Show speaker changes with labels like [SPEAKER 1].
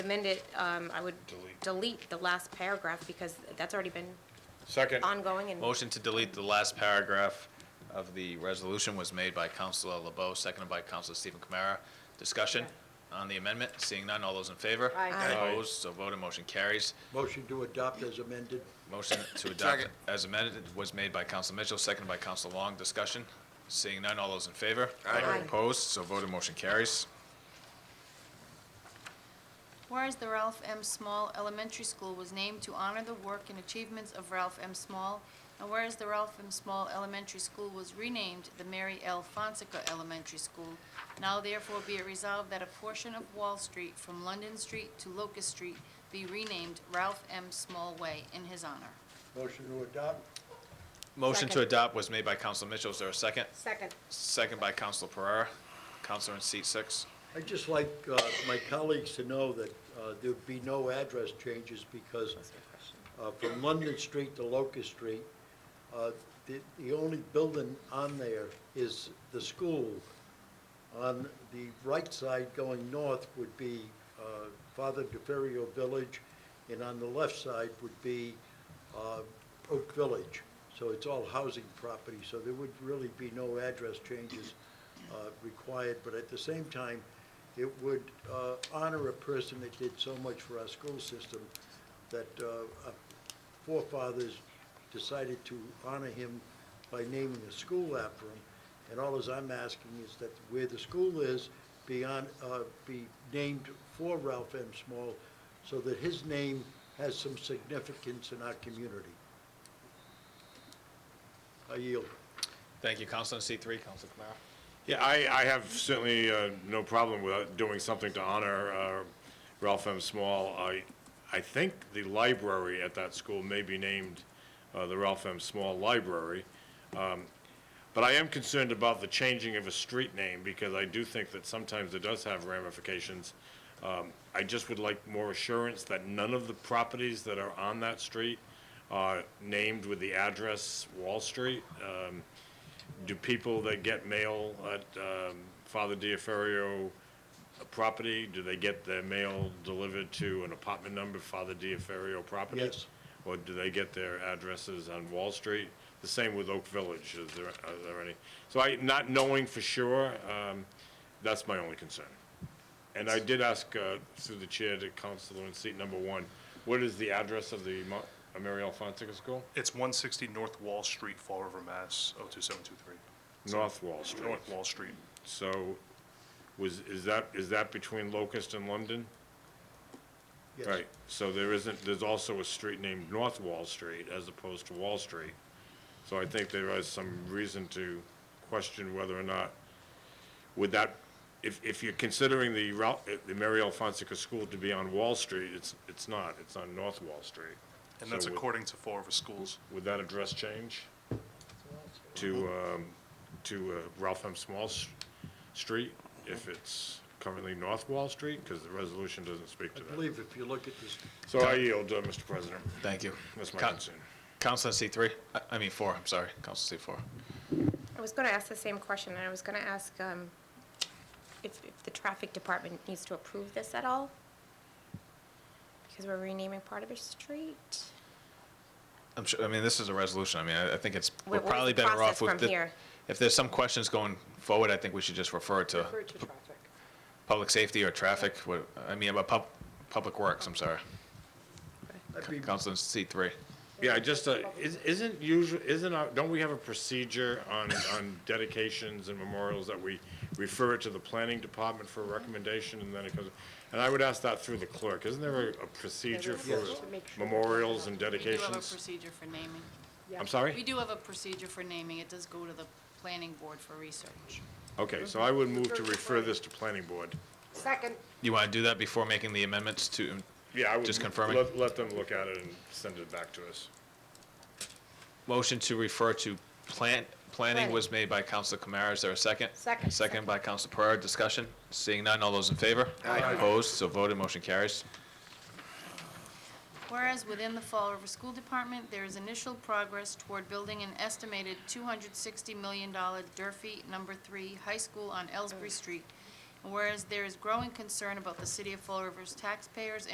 [SPEAKER 1] amend it, um, I would
[SPEAKER 2] Delete.
[SPEAKER 1] delete the last paragraph because that's already been
[SPEAKER 2] Second.
[SPEAKER 1] ongoing and
[SPEAKER 3] Motion to delete the last paragraph of the resolution was made by Counselor LeBeau, seconded by Counselor Stephen Kamara. Discussion on the amendment, seeing none, all those in favor?
[SPEAKER 1] Aye. Aye.
[SPEAKER 3] Opposed, so voted, motion carries.
[SPEAKER 4] Motion to adopt as amended.
[SPEAKER 3] Motion to adopt as amended was made by Counselor Mitchell, seconded by Counselor Long. Discussion, seeing none, all those in favor?
[SPEAKER 1] Aye. Aye.
[SPEAKER 3] Opposed, so voted, motion carries.
[SPEAKER 5] Whereas the Ralph M. Small Elementary School was named to honor the work and achievements of Ralph M. Small, and whereas the Ralph M. Small Elementary School was renamed the Mary L. Fonseca Elementary School, now therefore be it resolved that a portion of Wall Street from London Street to Locust Street be renamed Ralph M. Small Way in his honor.
[SPEAKER 4] Motion to adopt.
[SPEAKER 3] Motion to
[SPEAKER 1] Second.
[SPEAKER 3] adopt was made by Counselor Mitchell. Is there a second?
[SPEAKER 1] second.
[SPEAKER 3] Second by Counselor Pereira. Counselor in seat six.
[SPEAKER 4] I'd just like uh, my colleagues to know that uh, there'd be no address changes because uh, from London Street to Locust Street, uh, the the only building on there is the school. On the right side going north would be uh, Father DeFerrio Village, and on the left side would be uh, Oak Village. So it's all housing property, so there would really be no address changes uh, required. But at the same time, it would uh, honor a person that did so much for our school system, that uh, our forefathers decided to honor him by naming a school after him. And all as I'm asking is that where the school is, be on, uh, be named for Ralph M. Small, so that his name has some significance in our community. I yield.
[SPEAKER 3] Thank you. Counselor in seat three, Counselor Kamara.
[SPEAKER 2] Yeah, I, I have certainly uh, no problem with doing something to honor uh, Ralph M. Small. I, I think the library at that school may be named uh, the Ralph M. Small Library. Um, But I am concerned about the changing of a street name, because I do think that sometimes it does have ramifications. Um, I just would like more assurance that none of the properties that are on that street are named with the address Wall Street. Um, do people that get mail at um, Father Diaferio property, do they get their mail delivered to an apartment number, Father Diaferio property?
[SPEAKER 4] Yes.
[SPEAKER 2] Or do they get their addresses on Wall Street? The same with Oak Village, is there, are there any? So I, not knowing for sure, um, that's my only concern. And I did ask uh, through the chair to Counselor in seat number one, what is the address of the Mo- uh, Mary L. Fonseca School?
[SPEAKER 6] It's 160 North Wall Street, Fall River, Mass. 02723.
[SPEAKER 2] North Wall Street.
[SPEAKER 6] North Wall Street.
[SPEAKER 2] So was, is that, is that between Locust and London?
[SPEAKER 4] Yes.
[SPEAKER 2] Right, so there isn't, there's also a street named North Wall Street as opposed to Wall Street. So I think there is some reason to question whether or not, would that, if, if you're considering the route, the Mary L. Fonseca School to be on Wall Street, it's, it's not, it's on North Wall Street.
[SPEAKER 6] And that's
[SPEAKER 2] So would-
[SPEAKER 6] according to Fall River Schools.
[SPEAKER 2] Would that address change to, um, to uh, Ralph M. Small S- Street if it's currently North Wall Street? Because the resolution doesn't speak to
[SPEAKER 4] I
[SPEAKER 2] that.
[SPEAKER 4] believe if you look at this,
[SPEAKER 2] So I yield, uh, Mr. President.
[SPEAKER 3] Thank you.
[SPEAKER 2] That's my
[SPEAKER 3] Coun-
[SPEAKER 2] concern.
[SPEAKER 3] Counselor in seat three, I- I mean four, I'm sorry. Counselor in seat four.
[SPEAKER 1] I was going to ask the same question, and I was going to ask um, if if the traffic department needs to approve this at all? Because we're renaming part of a street.
[SPEAKER 3] I'm sure, I mean, this is a resolution. I mean, I I think it's, we're
[SPEAKER 1] What- what is
[SPEAKER 3] probably
[SPEAKER 1] the
[SPEAKER 3] better
[SPEAKER 1] process
[SPEAKER 3] off
[SPEAKER 1] from
[SPEAKER 3] with, the-
[SPEAKER 1] here?
[SPEAKER 3] if there's some questions going forward, I think we should just refer it to
[SPEAKER 7] to traffic.
[SPEAKER 3] public safety or traffic, what- I mean, about pub, public works, I'm sorry.
[SPEAKER 4] I'd be
[SPEAKER 3] Counselor in seat three.
[SPEAKER 2] Yeah, I just, uh, is- isn't usual, isn't, our- don't we have a procedure on, on dedications and memorials that we refer it to the planning department for a recommendation and then it comes? And I would ask that through the clerk. Isn't there a a procedure for
[SPEAKER 4] Yes.
[SPEAKER 2] memorials and
[SPEAKER 5] We do have a
[SPEAKER 2] dedications?
[SPEAKER 5] procedure for naming.
[SPEAKER 2] I'm sorry?
[SPEAKER 5] We do have a procedure for naming. It does go to the planning board for research.
[SPEAKER 2] Okay, so I would move to refer this to planning board.
[SPEAKER 7] Second,
[SPEAKER 3] You want to do that before making the amendments to,
[SPEAKER 2] Yeah, I would.
[SPEAKER 3] Just confirming.
[SPEAKER 2] Let, let them look at it and send it back to us.
[SPEAKER 3] motion to refer to plant, planning
[SPEAKER 7] Planning.
[SPEAKER 3] was made by Counselor Kamara. Is there a second?
[SPEAKER 7] Second.
[SPEAKER 3] Second by Counselor Pereira. Discussion? Seeing none, all those in favor? Aye. Opposed? So voted, motion carries.
[SPEAKER 5] Whereas within the Fall River School Department, there is initial progress toward building an estimated $260 million Durfee Number Three High School on Ellsbury Street, And whereas there is growing concern about the city of Fall River's taxpayers